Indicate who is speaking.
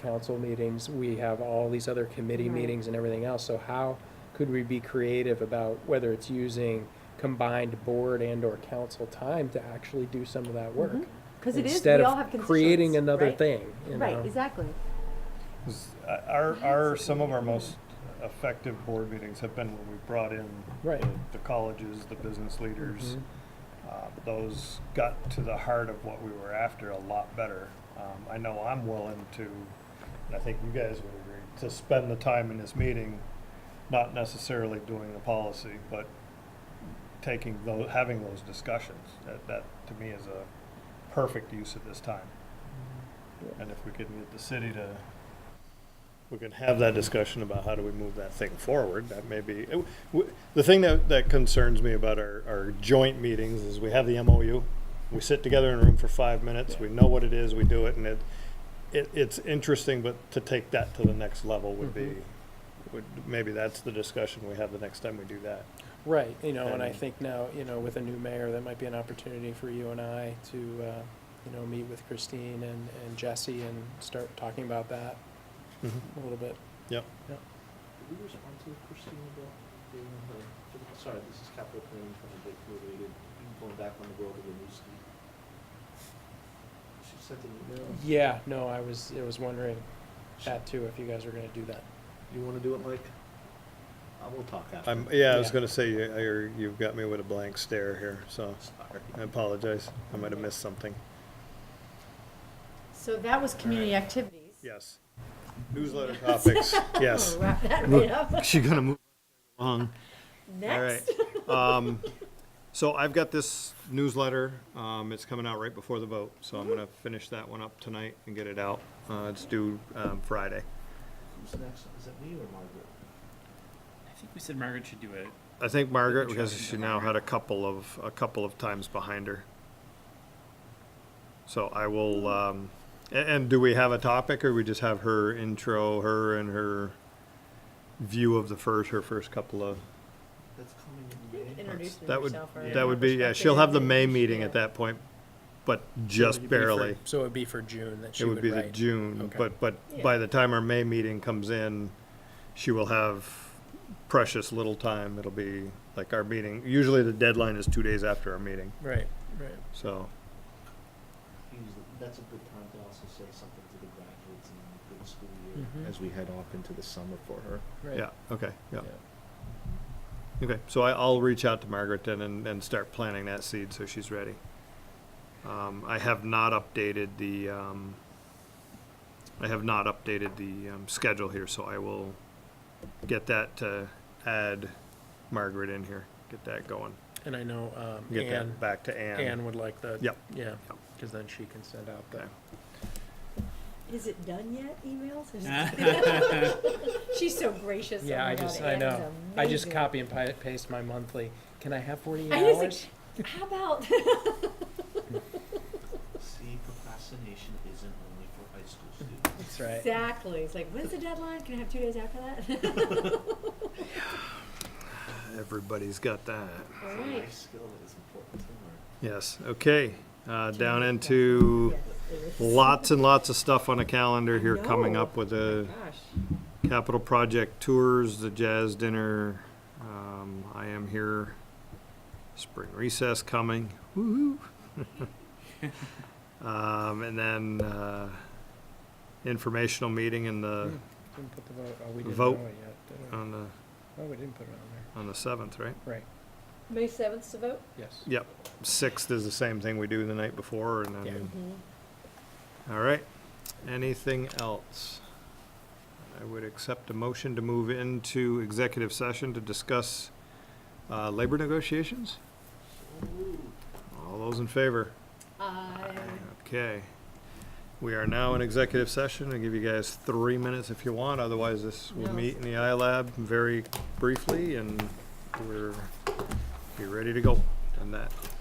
Speaker 1: council meetings, we have all these other committee
Speaker 2: Right.
Speaker 1: meetings and everything else, so how could we be creative about whether it's using combined board and or council time to actually do some of that work?
Speaker 2: Because Mm-hmm. it is, we
Speaker 1: Instead
Speaker 2: all have
Speaker 1: of creating
Speaker 2: constituents,
Speaker 1: another
Speaker 2: right?
Speaker 1: thing, you know?
Speaker 2: Right, exactly.
Speaker 3: Is- Our, our, some of our most effective board meetings have been when we've brought in
Speaker 1: Right.
Speaker 3: the- the colleges, the business leaders.
Speaker 1: Mhm.
Speaker 3: Uh, Those got to the heart of what we were after a lot better. Um, I know I'm willing to, and I think you guys would agree, to spend the time in this meeting, not necessarily doing the policy, but taking those, having those discussions. That, that to me is a perfect use of this time. And if we can get the city to, we can have that discussion about how do we move that thing forward, that may be, it- w- the thing that, that concerns me about our, our joint meetings is we have the MOU. We sit together in a room for five minutes, we know what it is, we do it, and it, it, it's interesting, but to take that to the next level would be, would, maybe that's the discussion we have the next time we do that.
Speaker 1: Right, you know, and I
Speaker 3: And-
Speaker 1: think now, you know, with a new mayor, that might be an opportunity for you and I to, uh, you know, meet with Christine and, and Jesse and start talking about that a little bit.
Speaker 3: Mm-hmm. Yep.
Speaker 4: Did we respond to Christina Bill? during her- Sorry, this is capital planning from the big related, going back on the world of the new ski. She sent an email.
Speaker 1: Yeah, no, I was, I was wondering that too, if you guys were gonna do that.
Speaker 4: You wanna do it, Mike? I will talk after.
Speaker 3: I'm, yeah, I was
Speaker 1: Yeah.
Speaker 3: gonna say, you, you're- you've got me with a blank stare here, so
Speaker 4: Sorry.
Speaker 3: I apologize, I might have missed something.
Speaker 2: So that was community activities.
Speaker 3: Yes. Newsletter topics, yes.
Speaker 2: We'll Wrap that right up.
Speaker 3: She's gonna move along. All right.
Speaker 2: Next.
Speaker 3: Um, So I've got this newsletter, um, it's coming out right before the vote, so I'm gonna finish that one up tonight and get it out. Uh, it's due, um, Friday.
Speaker 4: Who's next? Is it me or Margaret?
Speaker 5: I think we said Margaret should do it.
Speaker 3: I think Margaret, because she now had a couple of, a couple of times behind her. So I
Speaker 1: Hmm.
Speaker 3: will, um, a- and do we have a topic, or we just have her intro, her and her view of the first, her first couple of?
Speaker 4: That's coming in May.
Speaker 2: Introduce
Speaker 3: That would,
Speaker 2: yourself. or
Speaker 3: that would be, yeah,
Speaker 2: perspective
Speaker 3: she'll have the
Speaker 2: and-
Speaker 3: May meeting
Speaker 2: yeah.
Speaker 3: at that point, but
Speaker 1: So
Speaker 3: just
Speaker 1: it'd be for-
Speaker 3: barely.
Speaker 1: So it'd be for June that she
Speaker 3: It would
Speaker 1: would
Speaker 3: be the
Speaker 1: write.
Speaker 3: June,
Speaker 1: Okay.
Speaker 3: but, but by the time our May meeting comes in, she will have precious little time. It'll be like our meeting, usually the deadline is two days after our meeting,
Speaker 1: Right, right.
Speaker 3: so.
Speaker 4: Usually- That's a good time to also say something to the graduates and the good school
Speaker 1: Mhm.
Speaker 4: year as we head off into the summer for her.
Speaker 1: Right.
Speaker 3: Yeah, okay, yeah, okay. So I, I'll reach out to Margaret then and, and start planting that seed so she's ready. Um, I have not updated the, um, I have not updated the, um, schedule here, so I will get that to add Margaret in here, get that going.
Speaker 1: And I know, um,
Speaker 3: Get
Speaker 1: Anne,
Speaker 3: that back to Anne.
Speaker 1: Anne would like the.
Speaker 3: Yep.
Speaker 1: Yeah,
Speaker 3: Yep.
Speaker 1: cause then she can send out the.
Speaker 3: Okay.
Speaker 2: Is it done yet, emails? She's so gracious. Oh
Speaker 1: Yeah,
Speaker 2: my
Speaker 1: I
Speaker 2: God,
Speaker 1: just, I
Speaker 2: Anne is
Speaker 1: know. I just
Speaker 2: amazing.
Speaker 1: copy and pi- paste my monthly. Can I have forty-eight
Speaker 2: I just
Speaker 1: hours?
Speaker 2: like, How about,
Speaker 4: See, procrastination isn't only for high school students.
Speaker 1: That's right.
Speaker 2: exactly, it's like, when's the deadline? Can I have two days after that?
Speaker 3: Everybody's got that.
Speaker 2: All
Speaker 4: It's a
Speaker 2: right.
Speaker 4: life skill that is important to learn.
Speaker 3: Yes, okay. Uh, down into lots and lots of stuff on the calendar here coming up with the
Speaker 2: Gosh.
Speaker 3: capital project tours, the jazz dinner. Um, I am here, spring recess coming, woo-hoo. Um, and then, uh, informational meeting in the,
Speaker 1: Didn't put the vote, oh, we didn't know
Speaker 3: Vote. Uh-huh.
Speaker 1: it yet. did we?
Speaker 3: on the,
Speaker 1: Oh, we didn't put it on
Speaker 3: on the seventh, right?
Speaker 1: there. Right,
Speaker 2: May seventh to vote?
Speaker 1: yes.
Speaker 3: Yep, sixth is the same thing we do the night before and
Speaker 1: Yeah.
Speaker 3: then
Speaker 2: Mm-hmm.
Speaker 3: All right, anything else? I would accept a motion to move into executive session to discuss uh, labor negotiations? All those in favor?
Speaker 2: I
Speaker 3: Okay. We are now in executive session. I'll give you guys three minutes if you want, otherwise this will
Speaker 2: No.
Speaker 3: meet in the iLab very briefly and we're, be ready to go on that.